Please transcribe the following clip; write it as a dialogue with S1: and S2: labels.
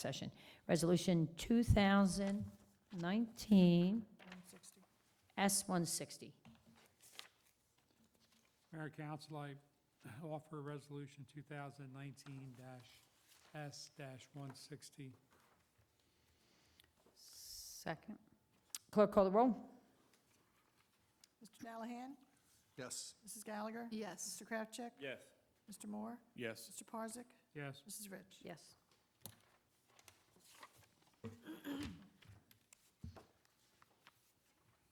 S1: session. Resolution 2019 S-160.
S2: Mayor and Council, I offer Resolution 2019-S-160.
S3: Second.
S1: Clerk call the roll.
S4: Mr. Callahan?
S5: Yes.
S4: Mrs. Gallagher?
S3: Yes.
S4: Mr. Kraftcheck?
S6: Yes.
S4: Mr. Moore?
S6: Yes.
S4: Mr. Parzak?
S2: Yes,
S4: Mrs. Rich?
S3: Yes.